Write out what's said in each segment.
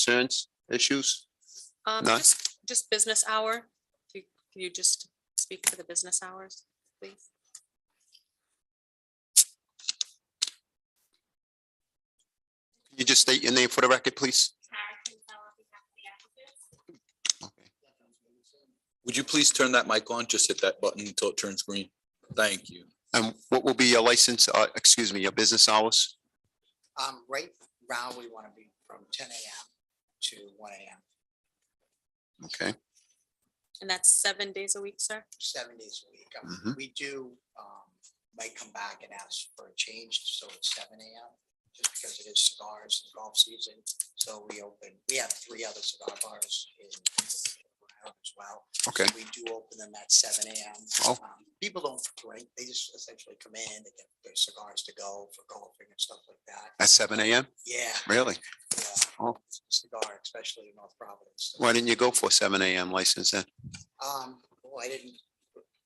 concerns, issues? Um, None? just, just business hour. If you- Can you just speak to the business hours, please? Can you just state your name for the record, please? Okay. Would you please turn that mic on? Just hit that button until it turns green. Thank you. And what will be your license, uh, excuse me, your business hours? Um, right now, we want to be from ten AM to one AM, Okay, And that's seven days a week, sir? seven days a week. Um, Mhm. We do, um, might come back and ask for a change, so it's seven AM, just because it is cigars and golf season. So we open, we have three other cigar bars in Brown as well. okay, We do open them at seven AM. Oh. Um, People don't drink, they just essentially come in, they get their cigars to go for golfing and stuff like that. at seven AM, Yeah, really? yeah. Oh. Cigar, especially in North Providence. Why didn't you go for a seven AM license then? Um, well, I didn't,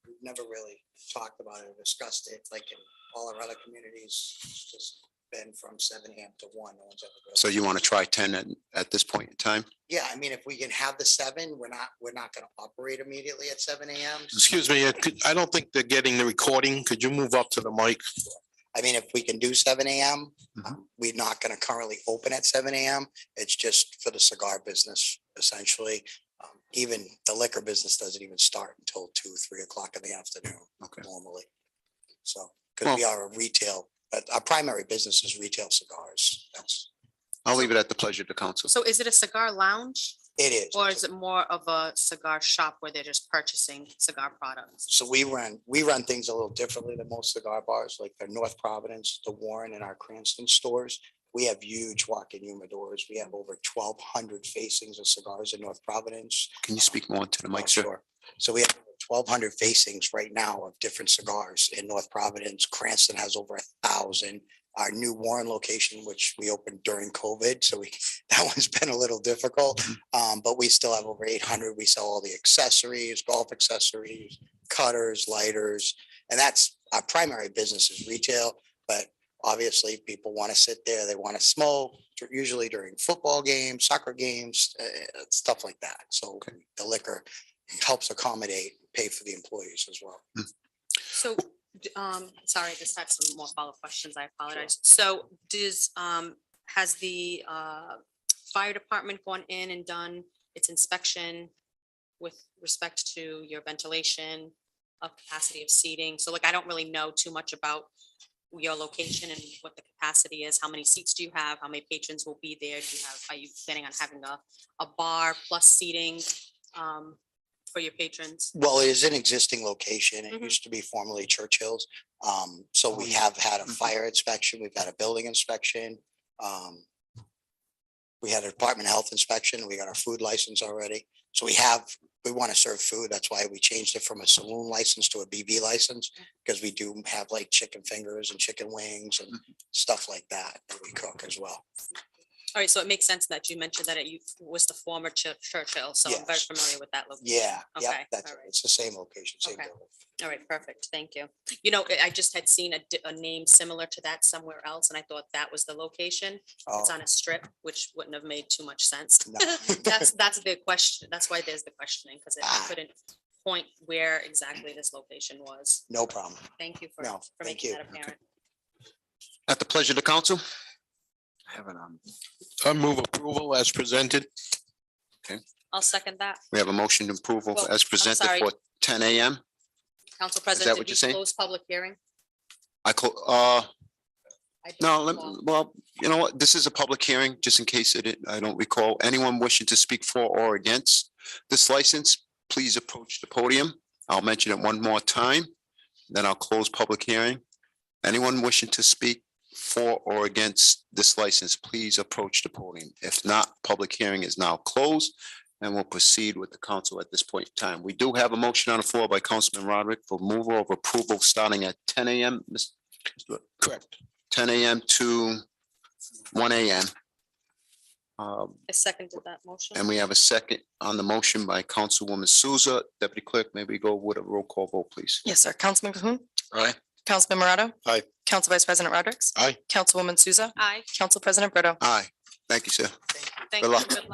we've never really talked about it or discussed it, like in all our other communities, it's just been from seven AM to one. no one's ever really- So you want to try ten at, at this point in time? Yeah, I mean, if we can have the seven, we're not, we're not gonna operate immediately at seven AM. Excuse me, I could- I don't think they're getting the recording. Could you move up to the mic? I mean, if we can do seven AM, Mhm. um, we're not gonna currently open at seven AM. It's just for the cigar business essentially. Um, Even the liquor business doesn't even start until two, three o'clock in the afternoon Okay. normally. So, because we are a retail, but our primary business is retail cigars. That's, I'll leave it at the pleasure of the council. So is it a cigar lounge it is. or is it more of a cigar shop where they're just purchasing cigar products? So we run, we run things a little differently than most cigar bars, like the North Providence, the Warren and our Cranston stores. We have huge walk-in humidors. We have over twelve hundred facings of cigars in North Providence. Can you speak more into the mic, Oh, sir? sure. So we have twelve hundred facings right now of different cigars in North Providence. Cranston has over a thousand. Our new Warren location, which we opened during COVID, so we, that one's been a little difficult. Um, but we still have over eight hundred. We sell all the accessories, golf accessories, cutters, lighters. And that's our primary business is retail, but obviously people want to sit there, they want to smoke, dr- usually during football games, soccer games, uh, stuff like that. So Okay. the liquor helps accommodate, pay for the employees as well. So, d- um, sorry, I just had some more follow-up questions. I apologize. So does, um, has the, uh, fire department gone in and done its inspection with respect to your ventilation, of capacity of seating? So like, I don't really know too much about your location and what the capacity is. How many seats do you have? How many patrons will be there? Do you have, are you planning on having a, a bar plus seating, um, for your patrons? Well, it is an existing location. It Mhm. used to be formerly Churchill's. Um, so we Oh. have had a Mm-hmm. fire inspection, we've had a building inspection. Um, we had a department of health inspection, we got our food license already. So we have, we want to serve food. That's why we changed it from a saloon license to a BB license. Mm-hmm. Because we do have like chicken fingers and chicken wings and Mm-hmm. stuff like that that we cook as well. All right, so it makes sense that you mentioned that it you- was the former Chur- Churchill, so I'm very Yes. familiar with that location. Yeah, yeah, Okay, that's, all right. it's the same location, same Okay. building. All right, perfect, thank you. You know, I- I just had seen a, di- a name similar to that somewhere else, and I thought that was the location. It's Oh, on a strip, which wouldn't have made too much sense. No. That's, that's the question, that's why there's the questioning, because I Ah. couldn't point where exactly this location was. No problem. Thank you for, No, for thank making you. that apparent. At the pleasure of the council? um, I move approval as presented. I'll second that. We have a motion to approval Well, as presented sorry. for ten AM. Council President, what did you're we saying? close public hearing? I call, uh, I did no, let, call. well, you know what, this is a public hearing, just in case it, I don't recall anyone wishing to speak for or against this license, please approach the podium. I'll mention it one more time, then I'll close public hearing. Anyone wishing to speak for or against this license, please approach the podium. If not, public hearing is now closed and we'll proceed with the council at this point in time. We do have a motion on the floor by Councilman Roderick for removal of approval starting at ten AM. Mr. Correct. ten AM to one AM. Um, I seconded that motion. And we have a second on the motion by Councilwoman Souza. Deputy Clerk, may we go with a roll call vote, please? Yes, sir. Councilman Cahoon. Aye. Councilman Morato. Aye. Council Vice President Rodrick. Aye. Councilwoman Souza. Aye. Council President Brito. Aye. Thank you, sir. Thank you. Thank Good you. luck. Good